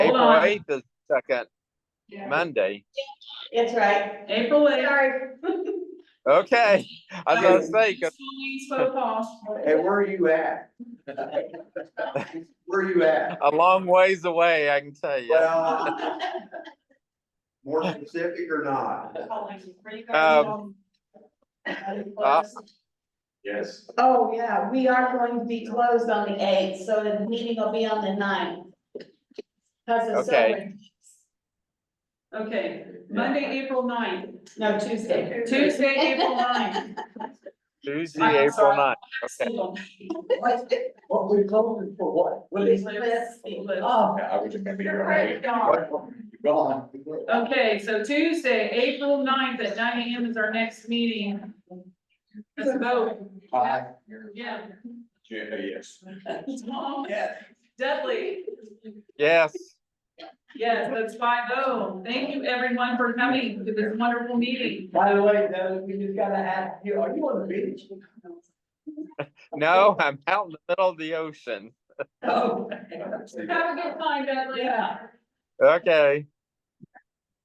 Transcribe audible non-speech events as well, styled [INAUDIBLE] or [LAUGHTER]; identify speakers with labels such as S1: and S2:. S1: July
S2: July.
S1: the second,
S2: Yeah.
S1: Monday.
S3: That's right.
S2: April eighth.
S3: Sorry.
S1: Okay, I was gonna say, 'cause-
S2: School weeks both off.
S4: Hey, where are you at? [LAUGHS] Where are you at?
S1: a long ways away, I can tell you.
S4: Well, more specific or not?
S1: Um, uh,
S4: Yes.
S3: Oh, yeah, we are going to be closed on the eighth, so the meeting will be on the ninth. Cause it's
S1: Okay.
S3: over,
S2: Okay, Monday, April ninth,
S3: no, Tuesday.
S2: Tuesday, April
S3: [LAUGHS]
S2: ninth.
S1: Tuesday, April ninth. Okay,
S2: School.
S4: What we closing for what? What is?
S3: Let's see.
S4: Yeah,
S3: Oh,
S4: I was just gonna be
S2: Right, darn.
S4: Gone.
S2: Okay, so Tuesday, April 9th at nine AM is our next meeting. Let's vote.
S4: Aye.
S2: Yeah.
S3: [LAUGHS]
S4: Yeah, yes.
S2: Tom,
S4: Yeah.
S2: Dudley,
S1: yes,
S2: yes, that's five oh. Thank you everyone for coming to this wonderful meeting.
S4: By the way, Doug, we just gotta ask you, are you on the beach?
S1: no, I'm out in the middle of the ocean.
S4: Oh.
S2: Have a good time, Dudley.
S3: Yeah.
S1: Okay,